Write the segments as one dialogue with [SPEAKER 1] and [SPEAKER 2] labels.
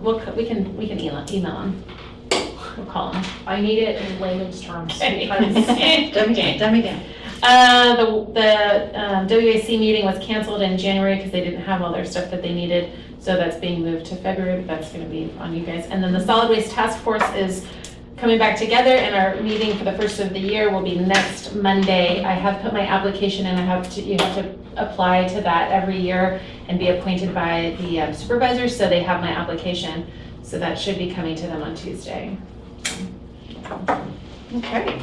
[SPEAKER 1] We'll, c- we can, we can email, email him. We'll call him.
[SPEAKER 2] I need it in layman's terms because
[SPEAKER 1] Dummy
[SPEAKER 3] dummy down.
[SPEAKER 1] Uh, the, the um, WAC meeting was canceled in January because they didn't have all their stuff that they needed. So that's being moved to February, but that's gonna be on you guys. And then the solid waste task force is coming back together and our meeting for the first of the year will be next Monday. I have put my application in, I have to, you have to apply to that every year and be appointed by the um, supervisors, so they have my application. So that should be coming to them on Tuesday.
[SPEAKER 3] Okay.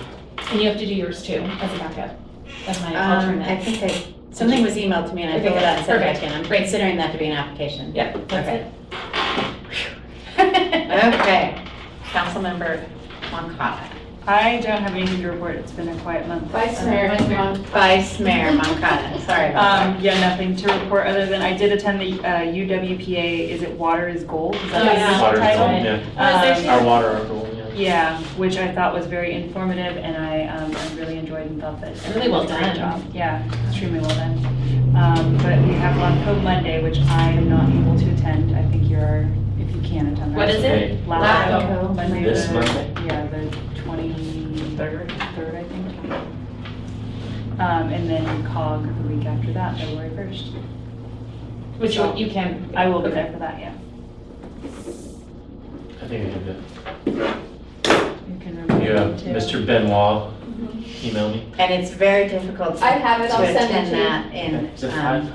[SPEAKER 1] And you have to do yours too, as a backup, as my
[SPEAKER 3] Um,
[SPEAKER 1] alternate.
[SPEAKER 3] I think I, something was emailed to me and I filled it out and sent it back in. I'm considering that to be an application.
[SPEAKER 1] Yep, that's it.
[SPEAKER 3] Okay. Councilmember Moncada.
[SPEAKER 4] I don't have anything to report, it's been a quiet month.
[SPEAKER 1] Um, Vice Mayor,
[SPEAKER 3] Vice Mayor Moncada, sorry about
[SPEAKER 4] Um, yeah, nothing to report, other than I did attend the uh, UWPA, is it Water is Gold? Is that
[SPEAKER 1] Oh,
[SPEAKER 4] the
[SPEAKER 1] yeah.
[SPEAKER 4] official
[SPEAKER 5] Water is
[SPEAKER 4] title?
[SPEAKER 5] gold, yeah.
[SPEAKER 1] Uh,
[SPEAKER 4] Um,
[SPEAKER 5] Our water are gold, yeah.
[SPEAKER 4] Yeah, which I thought was very informative, and I, um, I really enjoyed and thought that.
[SPEAKER 1] Really well
[SPEAKER 4] it was a great
[SPEAKER 1] done.
[SPEAKER 4] job. Yeah, extremely well done. Um, but we have Lock Code Monday, which I am not able to attend, I think you're, if you can attend. that.
[SPEAKER 1] What is it?
[SPEAKER 5] Okay,
[SPEAKER 4] Lock
[SPEAKER 1] Lock
[SPEAKER 4] Code Monday.
[SPEAKER 5] This
[SPEAKER 4] the-
[SPEAKER 5] Monday?
[SPEAKER 4] Yeah, the twenty-third, third, I think. Um, and then COG the week after that, February first.
[SPEAKER 1] Which you you can.
[SPEAKER 4] I will be there for that, yeah.
[SPEAKER 5] I think I did that.
[SPEAKER 4] You can remove
[SPEAKER 5] You, uh,
[SPEAKER 4] me too.
[SPEAKER 5] Mr. Benoit email me.
[SPEAKER 3] that. And it's very difficult to
[SPEAKER 6] I have it, I'll
[SPEAKER 3] to
[SPEAKER 6] send
[SPEAKER 3] attend
[SPEAKER 6] it to you.
[SPEAKER 3] that in
[SPEAKER 5] Is it
[SPEAKER 3] um,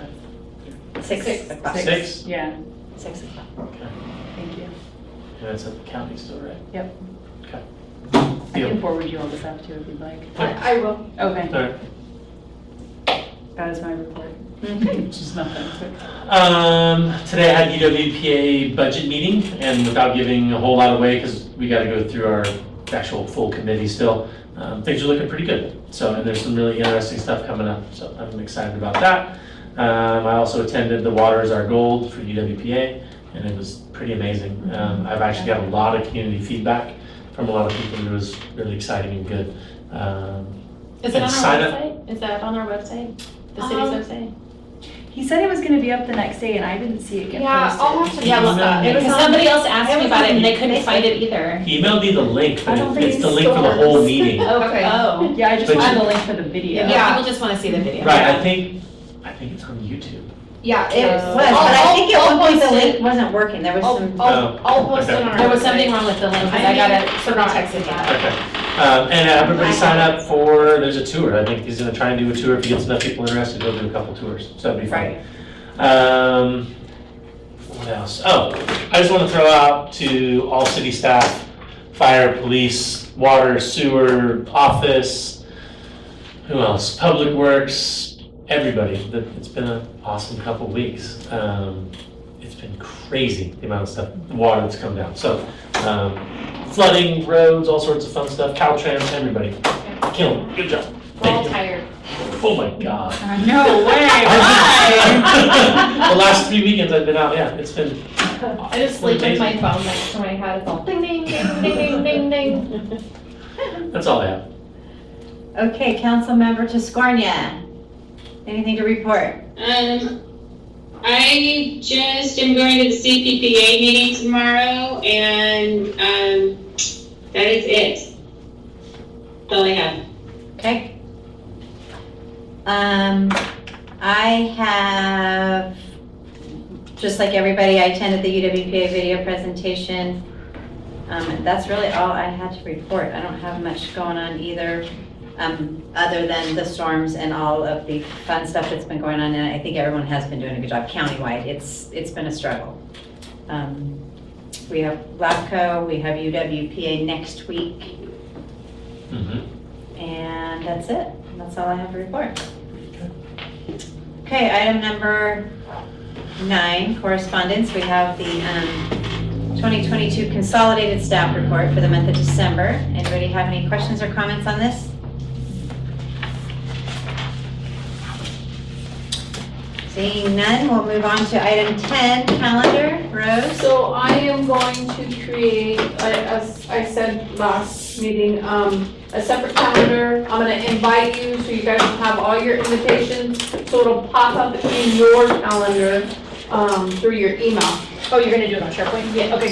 [SPEAKER 5] five?
[SPEAKER 3] six
[SPEAKER 6] Six.
[SPEAKER 3] o'clock.
[SPEAKER 5] Six?
[SPEAKER 4] Yeah,
[SPEAKER 3] Six o'clock.
[SPEAKER 4] thank you.
[SPEAKER 5] Yeah, That's at the county still, right?
[SPEAKER 4] Yep.
[SPEAKER 5] Okay.
[SPEAKER 4] I can
[SPEAKER 5] Deal.
[SPEAKER 4] forward you all this up too if you'd like.
[SPEAKER 6] I I will.
[SPEAKER 4] Okay,
[SPEAKER 5] All right.
[SPEAKER 4] that is my report,
[SPEAKER 3] Mhm.
[SPEAKER 4] which is nothing.
[SPEAKER 5] Um, today I had UWPA budget meeting, and without giving a whole lot away, because we got to go through our actual full committee still, um, things are looking pretty good. So, and there's some really interesting stuff coming up, so I'm excited about that. Um, I also attended The Water is Our Gold for E UWPA, and it was pretty amazing. Um, I've actually got a lot of community feedback from a lot of people, and it was really exciting and good. Um,
[SPEAKER 1] Is it on our
[SPEAKER 5] Sign up.
[SPEAKER 1] website? Is that on our website? The
[SPEAKER 6] Um,
[SPEAKER 1] city's website?
[SPEAKER 4] He said it was gonna be up the next day and I didn't see it get posted.
[SPEAKER 6] Yeah, I'll have to.
[SPEAKER 1] Yeah, well,
[SPEAKER 5] uh, it
[SPEAKER 1] because
[SPEAKER 5] was
[SPEAKER 1] somebody else asked
[SPEAKER 3] it
[SPEAKER 1] me
[SPEAKER 3] was
[SPEAKER 1] about it
[SPEAKER 3] on
[SPEAKER 1] and they couldn't
[SPEAKER 3] Facebook.
[SPEAKER 1] find it either.
[SPEAKER 5] He emailed me the link,
[SPEAKER 4] I don't
[SPEAKER 5] but
[SPEAKER 4] think
[SPEAKER 5] it's the
[SPEAKER 4] he
[SPEAKER 5] link for the whole
[SPEAKER 6] stores.
[SPEAKER 5] meeting.
[SPEAKER 6] Okay.
[SPEAKER 1] Oh.
[SPEAKER 4] Yeah, I just
[SPEAKER 5] But
[SPEAKER 4] wanted
[SPEAKER 5] you-
[SPEAKER 4] the link for the video.
[SPEAKER 1] Yeah, people just want to see the video.
[SPEAKER 5] Right, I think, I think it's on YouTube.
[SPEAKER 6] Yeah,
[SPEAKER 3] It
[SPEAKER 6] it
[SPEAKER 3] was, but I think at one point the link wasn't working. There was
[SPEAKER 6] I'll,
[SPEAKER 3] some,
[SPEAKER 5] Oh,
[SPEAKER 6] I'll, I'll post it
[SPEAKER 5] okay.
[SPEAKER 6] on our.
[SPEAKER 1] There was something
[SPEAKER 6] website.
[SPEAKER 1] wrong with the link because
[SPEAKER 6] I
[SPEAKER 1] I got it,
[SPEAKER 6] mean,
[SPEAKER 1] someone
[SPEAKER 6] forgot
[SPEAKER 1] texted
[SPEAKER 6] to
[SPEAKER 1] me.
[SPEAKER 6] add.
[SPEAKER 5] Okay. Um, And everybody sign up for, there's a tour. I think he's gonna try and do a tour. If he gets enough people interested, he'll do a couple tours. So that'd be fun.
[SPEAKER 3] right.
[SPEAKER 5] Um, what else? Oh, I just want to throw out to all city staff, fire, police, water, sewer, office, who else? Public Works, everybody. That- It's been an awesome couple weeks. Um, it's been crazy, the amount of stuff, water that's come down. So, um, flooding, roads, all sorts of fun stuff, Caltrans, everybody. Kill 'em. Good job.
[SPEAKER 1] We're all
[SPEAKER 5] Thank you.
[SPEAKER 1] tired.
[SPEAKER 5] Oh my God.
[SPEAKER 4] No way,
[SPEAKER 5] the last three weekends I've been out, yeah, it's been.
[SPEAKER 1] I just sleep with my phone next to my head, it's all ding, ding, ding, ding, ding, ding.
[SPEAKER 5] That's all I have.
[SPEAKER 3] Okay, Councilmember Tascornia, anything to report?
[SPEAKER 7] Um, I just am going to the CPPA meeting tomorrow, and, um, that is it. That's all I have.
[SPEAKER 3] Okay. Um, I have, just like everybody, I attended the UWPA video presentation. Um, and that's really all I had to report. I don't have much going on either, um, other than the storms and all of the fun stuff that's been going on. And I think everyone has been doing a good job countywide. It's, it's been a struggle. Um, we have LAPCO, we have UWPA next week.
[SPEAKER 5] Mm-hmm.
[SPEAKER 3] And that's it. That's all I have to report. Okay, item number nine, correspondence. We have the um, 2022 Consolidated Staff Report for the month of December. Anybody have any questions or comments on this? Seeing none, we'll move on to item 10, calendar. Rose?
[SPEAKER 6] So I am going to create, I- as I said last meeting, um, a separate calendar. I'm gonna invite you, so you guys will have all your invitations, so it'll pop up in your calendar, um, through your email.
[SPEAKER 1] Oh, you're gonna do it on SharePoint? Yeah, okay,